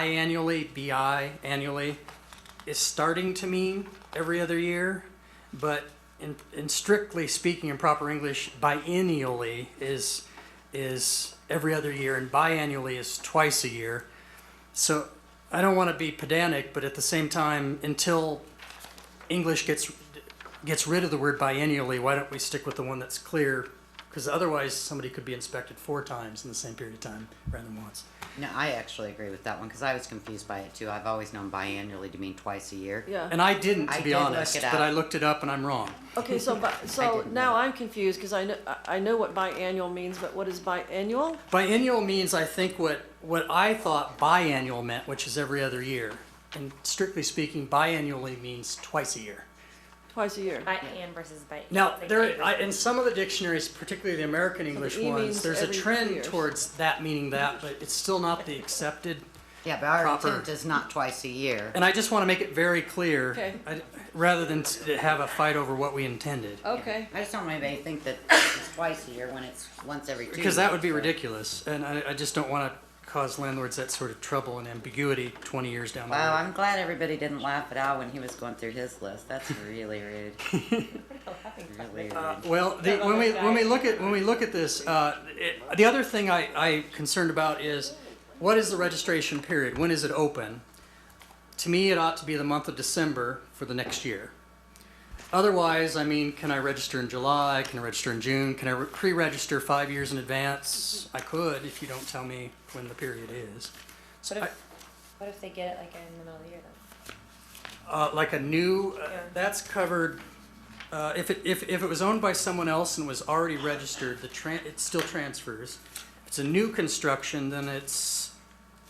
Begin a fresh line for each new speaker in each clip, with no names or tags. biannually, BI annually, is starting to mean every other year, but in, in strictly speaking in proper English, biennially is is every other year, and biannually is twice a year. So I don't want to be pedantic, but at the same time, until English gets gets rid of the word biennially, why don't we stick with the one that's clear? Because otherwise, somebody could be inspected four times in the same period of time rather than once.
No, I actually agree with that one because I was confused by it too. I've always known biannually to mean twice a year.
Yeah.
And I didn't, to
I
be
did look
honest,
it
but
up.
I looked it up and I'm wrong.
Okay, so, bi- so
didn't
now
know.
I'm confused, because I know, I- I know what biannual means, but what is biannual?
Biennial means, I think, what, what I thought biannual meant, which is every other year. And strictly speaking, biannually means twice a year.
Twice a year.
By Ann versus by.
Now,
like,
there, I, in some of the dictionaries, particularly the American English
E
ones,
means
there's a
every
trend
year.
towards that meaning that, but it's still not the accepted.
Yeah, but our
Proper.
intent is not twice a year.
And I just want to make it very clear,
Okay.
I- rather than to have a fight over what we intended.
Okay,
I just don't want anybody to think that it's twice a year when it's once every two.
Because that would be
years.
ridiculous, and I, I just don't want to cause landlords that sort of trouble and ambiguity 20 years down the
Wow,
road.
I'm glad everybody didn't laugh at Al when he was going through his list. That's really rude.
Oh, Mm-hmm.
really rude.
Well, the, when we when we look at when we look at this, uh, it, the other thing I, I concerned about is what is the registration period? When is it open? To me, it ought to be the month of December for the next year. Otherwise, I mean, can I register in July? Can I register in June? Can I re- pre-register five years in advance? I could if you don't tell me when the period is.
What if, what if they get it like in the middle of the year then?
Uh, like a new, uh,
Yeah.
that's covered, uh, if it, if, if it was owned by someone else and was already registered, the tran, it still transfers. If it's a new construction, then it's,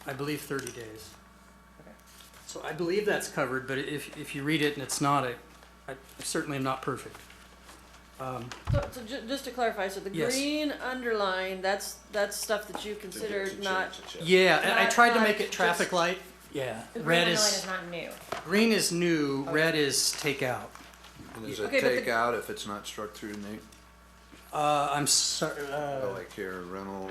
I believe, thirty days. So I believe that's covered, but if, if you read it and it's not, I, I certainly am not perfect.
so, so ju- just to clarify, so the
Yes.
green underline, that's, that's stuff that you considered not,
Yeah, I- I
Not-
tried to
not
make it traffic
just-
light, yeah.
The green
Red
underline
is,
not Oh, new.
green is new, red is take out.
And there's a
Okay, but the-
takeout if it's not struck through, Nate,
Uh, I'm sorry, uh.
like here, rental,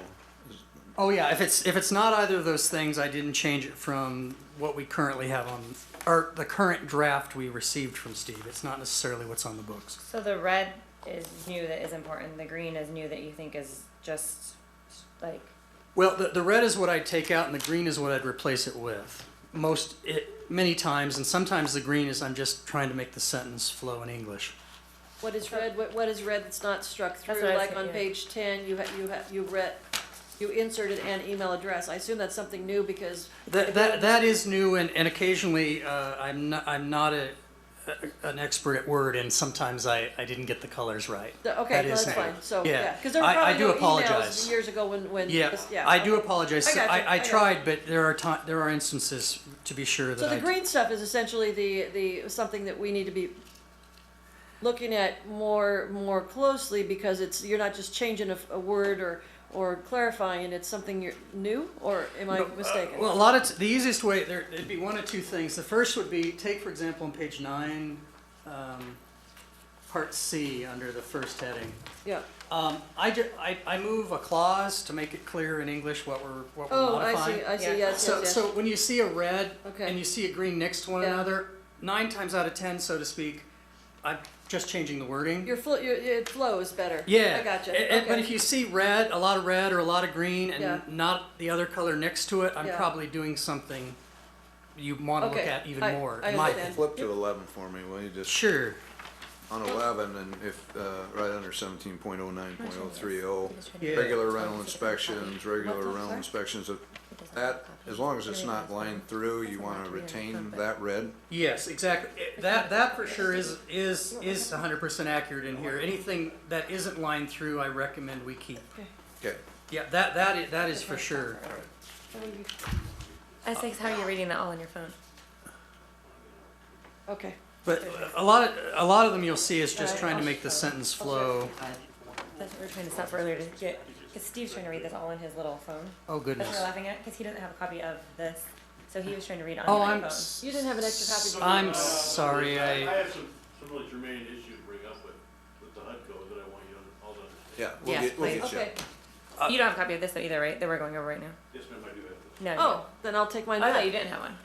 Oh yeah, if it's if it's not either of those things, I didn't change it from what we currently have on or the current draft we received from Steve. It's not necessarily what's on the books.
So the red is new that is important. The green is new that you think is just like.
Well, the, the red is what I'd take out, and the green is what I'd replace it with. Most it many times, and sometimes the green is I'm just trying to make the sentence flow in English.
what is red, what, what is red that's not struck through?
what I was
Like on
thinking.
page ten, you ha you ha you read, you inserted an email address. I assume that's something new because
That that that is new, and and occasionally uh, I'm not I'm not a, a an expert at word, and sometimes I I didn't get the colors right.
The- Okay,
That
well,
is
that's
new.
fine, so,
Yeah.
yeah, because there were
I- I
probably
do
no
apologize.
emails years ago when, when,
Yeah,
this-
I do
okay.
apologize.
I
So
got you,
I,
I
I
got you.
tried, but there are ti- there are instances to be sure that
So the
I-
green stuff is essentially the, the, something that we need to be looking at more, more closely, because it's, you're not just changing a, f- a word or, or clarifying, it's something you're new, or am I mistaken?
uh, Well, a lot of, t- the easiest way, there, it'd be one of two things. The first would be, take for example on page nine, um, part C, under the first heading.
Yeah,
Um, I ju, I, I move a clause to make it clear in English what we're, what we're
oh, I
modifying.
see, I
Yeah.
see, yes,
So,
yes,
so when you see a red
Okay.
and you see a green next to one
Yeah.
another, nine times out of ten, so to speak, I'm just changing the wording.
yes. Your flo, your, it flows better.
Yeah.
I gotcha,
A- a- But if
okay,
you see red, a lot of red or a lot of green, and
Yeah.
not the other color next to it, I'm
Yeah.
probably doing something you want to look
Okay,
at even
I-
more.
I
in my opinion.
understand.
flip to eleven for me, will you, just
Sure.
on eleven, and if, uh, right under seventeen point oh nine point oh three oh,
Yeah.
regular rental inspections, regular
What's that,
rental
sorry?
inspections of, that, as long as it's not lined through, you wanna retain that red.
Yes, exactly. It- That that for sure is is is 100% accurate in here. Anything that isn't lined through, I recommend we keep.
Okay,
Yeah, that that is, that is for sure.
I was like, how are you reading that all on your phone?
okay,
But a lot of a lot of them you'll see is just
Right.
trying to make the sentence flow.
That's what we were trying to stop earlier to get. Because Steve's trying to read this all on his little phone.
Oh
That's what
goodness.
we're laughing at because he doesn't have a copy of this. So he was trying to read on
Oh,
my
I'm
phone.
s-
you didn't have an extra copy. did you?
I'm sorry.
I
I
have some, some really germane issue to bring up with, with the HUDCO that I want you to all to understand.
yeah, we'll
Yes,
get, we'll
please.
get you.
Okay,
you don't have a copy of this though either, right? That we're going over right now.
Yes, ma'am, I do have this.
No, no.
Oh, then I'll take mine
I
back.
thought you didn't have one.